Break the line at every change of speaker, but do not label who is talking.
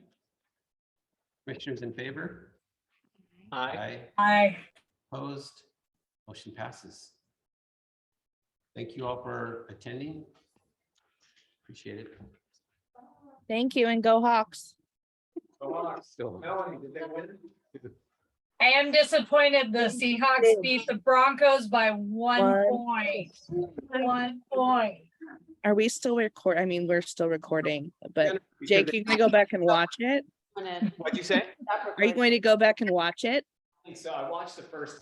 Commissioners in favor?
Aye.
Aye.
Opposed? Motion passes. Thank you all for attending. Appreciate it.
Thank you and go Hawks.
Still.
Melanie, did they win?
I am disappointed the Seahawks beat the Broncos by one
One.
point. One point.
Are we still record? I mean, we're still recording, but
We should-
Jake, you gonna go back and watch it?
wanna
What'd you say?
stop
Are you
recording.
going to go back and watch it?
So I watched the first